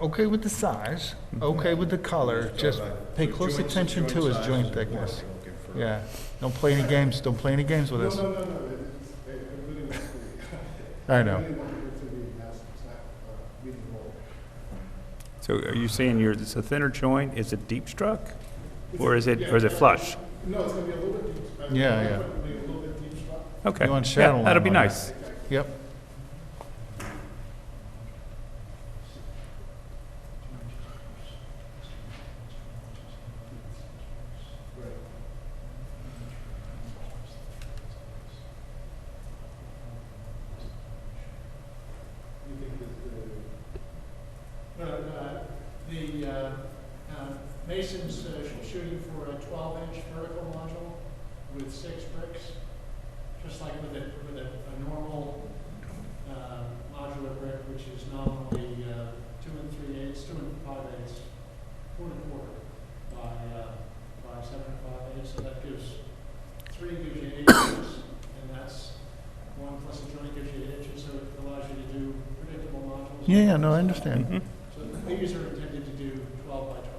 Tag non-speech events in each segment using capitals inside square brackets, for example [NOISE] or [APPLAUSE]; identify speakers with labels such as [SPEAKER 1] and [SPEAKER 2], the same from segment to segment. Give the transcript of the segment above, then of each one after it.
[SPEAKER 1] okay with the size, okay with the color, just pay close attention to his joint thickness. Yeah, don't play any games, don't play any games with
[SPEAKER 2] No, no,
[SPEAKER 1] us.
[SPEAKER 2] no, no, it's, I I really want to be,
[SPEAKER 1] I
[SPEAKER 2] I
[SPEAKER 1] know.
[SPEAKER 2] really want it to be mass, uh, meeting hall.
[SPEAKER 3] So are you saying you're, it's a thinner joint, is it deep struck?
[SPEAKER 2] It's
[SPEAKER 3] Or
[SPEAKER 2] a-
[SPEAKER 3] is it,
[SPEAKER 2] yeah,
[SPEAKER 3] or is it
[SPEAKER 2] yeah.
[SPEAKER 3] flush?
[SPEAKER 2] No, it's gonna be a little bit deep. I mean,
[SPEAKER 1] Yeah,
[SPEAKER 2] I'm
[SPEAKER 1] yeah.
[SPEAKER 2] gonna be a little bit deep shot.
[SPEAKER 3] Okay.
[SPEAKER 1] You want shadow
[SPEAKER 3] Yeah,
[SPEAKER 1] line
[SPEAKER 3] that'll be
[SPEAKER 1] on it.
[SPEAKER 3] nice.
[SPEAKER 1] Yep,
[SPEAKER 2] You think that the? No, no, the, uh, uh, Mason's uh, sh- shooting for a twelve inch vertical module with six bricks, just like with a, with a, a normal, uh, modular brick, which is nominally, uh, two and three eighths, two and five eighths, four and a quarter by, uh, by seven and five eighths, so that gives, three gives you eight inches, and that's one plus a joint gives you eight inches, so it allows you to do predictable modules.
[SPEAKER 1] yeah, yeah, no, I understand.
[SPEAKER 3] Mhm.
[SPEAKER 2] So these are intended to do twelve by twelve.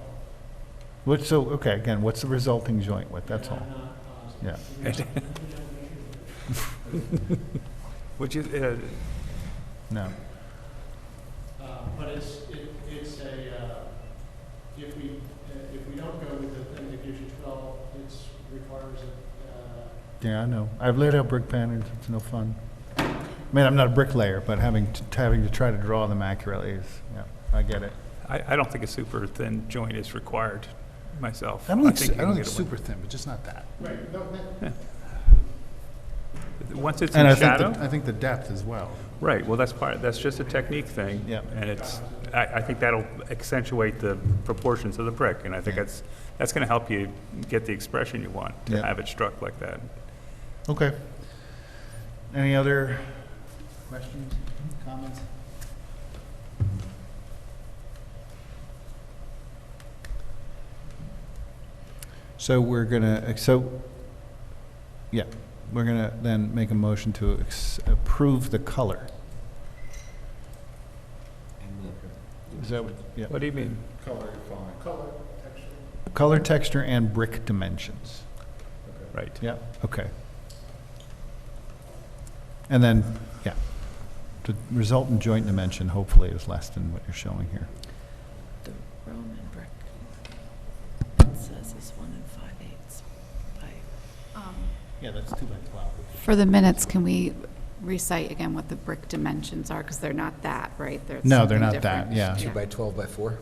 [SPEAKER 1] What, so, okay, again, what's the resulting joint width, that's all.
[SPEAKER 2] And I'm not uh, positive.
[SPEAKER 1] Yeah.
[SPEAKER 3] Which is, uh,
[SPEAKER 1] No,
[SPEAKER 2] Uh, But it's, it- it's a, uh, if we, uh, if we don't go with the thing that gives you twelve, it's requires uh, a,
[SPEAKER 1] yeah, I know. I've laid out brick patterns, it's no fun. I mean, I'm not a bricklayer, but having, to- having to try to draw them accurately is, yeah, I get it.
[SPEAKER 3] uh, I, I don't think a super thin joint is required myself.
[SPEAKER 4] I don't
[SPEAKER 3] you
[SPEAKER 4] think, I
[SPEAKER 3] can
[SPEAKER 4] don't think
[SPEAKER 3] get away-
[SPEAKER 4] super thin, but just not that.
[SPEAKER 2] uh, right, no, that-
[SPEAKER 3] Once it's
[SPEAKER 4] And I
[SPEAKER 3] in
[SPEAKER 4] think,
[SPEAKER 3] shadow,
[SPEAKER 4] the- I think the depth as well.
[SPEAKER 3] right, well, that's part, that's just a technique thing.
[SPEAKER 1] Yeah.
[SPEAKER 3] And it's, I, I think that'll accentuate the proportions of the brick, and I think
[SPEAKER 1] Yeah.
[SPEAKER 3] that's, that's gonna help you get the expression you want, to
[SPEAKER 1] Yeah.
[SPEAKER 3] have it struck like that.
[SPEAKER 1] Okay. Any other
[SPEAKER 4] Questions, comments?
[SPEAKER 1] So we're gonna, so, yeah, we're gonna then make a motion to ex- approve the color. Is that what, yeah,
[SPEAKER 3] What do you mean?
[SPEAKER 4] Color, fine.
[SPEAKER 2] color, texture.
[SPEAKER 1] color, texture, and brick dimensions.
[SPEAKER 3] Right.
[SPEAKER 1] Yeah, okay. And then, yeah, the resultant joint dimension hopefully is less than what you're showing here.
[SPEAKER 5] The Roman brick. It says is one and five eighths by.
[SPEAKER 1] Yeah, that's two by twelve.
[SPEAKER 6] For the minutes, can we recite again what the brick dimensions are? Because they're not that, right? They're
[SPEAKER 1] No, they're not
[SPEAKER 6] something different.
[SPEAKER 1] that, yeah.
[SPEAKER 7] Two by 12 by four?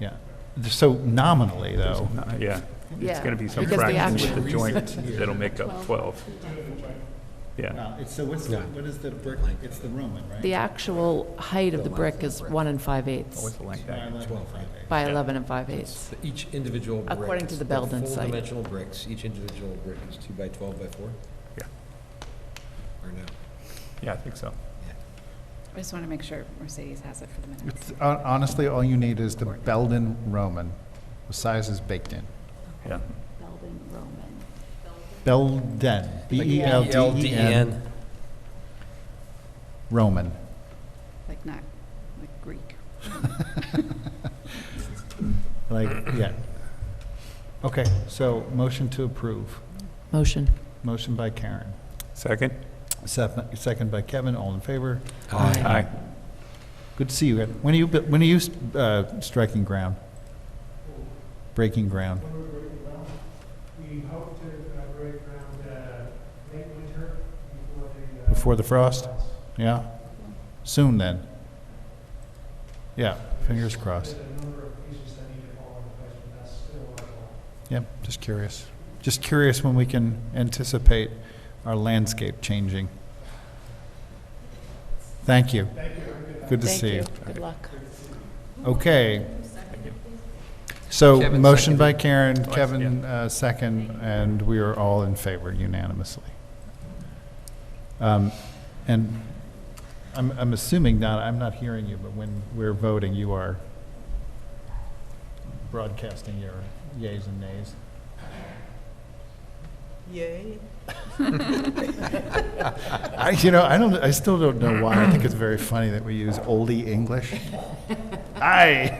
[SPEAKER 1] Yeah. So nominally, though,
[SPEAKER 3] No, Yeah, it's
[SPEAKER 5] Yeah,
[SPEAKER 3] gonna be some
[SPEAKER 6] because the
[SPEAKER 3] fraction with
[SPEAKER 6] actual-
[SPEAKER 3] the joint that'll make up 12. Yeah,
[SPEAKER 1] No, it's, so what's, the- what is the brick, it's the Roman, right?
[SPEAKER 5] The actual height of the brick is one and five eighths
[SPEAKER 3] always the length.
[SPEAKER 1] By 11
[SPEAKER 7] 12,
[SPEAKER 1] by
[SPEAKER 7] right.
[SPEAKER 1] eight.
[SPEAKER 5] by 11 and five eighths.
[SPEAKER 7] So Each individual brick.
[SPEAKER 5] According to the Belden
[SPEAKER 7] Full
[SPEAKER 5] site.
[SPEAKER 7] dimensional bricks, each individual brick is two by 12 by four?
[SPEAKER 3] Yeah.
[SPEAKER 7] Or no?
[SPEAKER 3] Yeah, I think so.
[SPEAKER 6] I just want to make sure Mercedes has it for the minutes.
[SPEAKER 4] It's-
[SPEAKER 1] uh,
[SPEAKER 4] hon- Honestly, all you need is the Belden Roman, the size is baked in.
[SPEAKER 3] Yeah.
[SPEAKER 6] Belden Roman.
[SPEAKER 1] Belden, E
[SPEAKER 7] E
[SPEAKER 1] B-E-L-D-E-N, Roman.
[SPEAKER 6] Like not, like Greek.
[SPEAKER 1] Like, yeah. Okay, so motion to approve.
[SPEAKER 5] Motion.
[SPEAKER 1] Motion by Karen.
[SPEAKER 3] Second?
[SPEAKER 1] Sep- Second by Kevin, all in favor.
[SPEAKER 7] Aye.
[SPEAKER 3] Aye.
[SPEAKER 1] Good to see you. When are you, bu- when are you uh, striking ground? Breaking ground?
[SPEAKER 2] When we're breaking ground, we hope to uh, break ground uh, late winter before the. uh,
[SPEAKER 1] Before the frost? Yeah? Soon then? Yeah, fingers crossed.
[SPEAKER 2] There's a number of pieces that need to fall into place, but that's still our goal.
[SPEAKER 1] Yep, just curious. Just curious when we can anticipate our landscape changing. Thank you. Good to
[SPEAKER 5] Thank
[SPEAKER 1] see you.
[SPEAKER 5] you. Good luck.
[SPEAKER 1] Okay. So,
[SPEAKER 7] Kevin
[SPEAKER 1] motion by
[SPEAKER 7] seconded.
[SPEAKER 1] Karen,
[SPEAKER 7] Oh,
[SPEAKER 1] Kevin uh, second, and we are all in favor unanimously. Um, And I'm, I'm assuming, Donna, I'm not hearing you, but when we're voting, you are broadcasting your yays and nays.
[SPEAKER 5] Yay.
[SPEAKER 1] [LAUGHS] I, you know, I don't, I still don't know why. I think it's very funny that we use oldie English. Aye.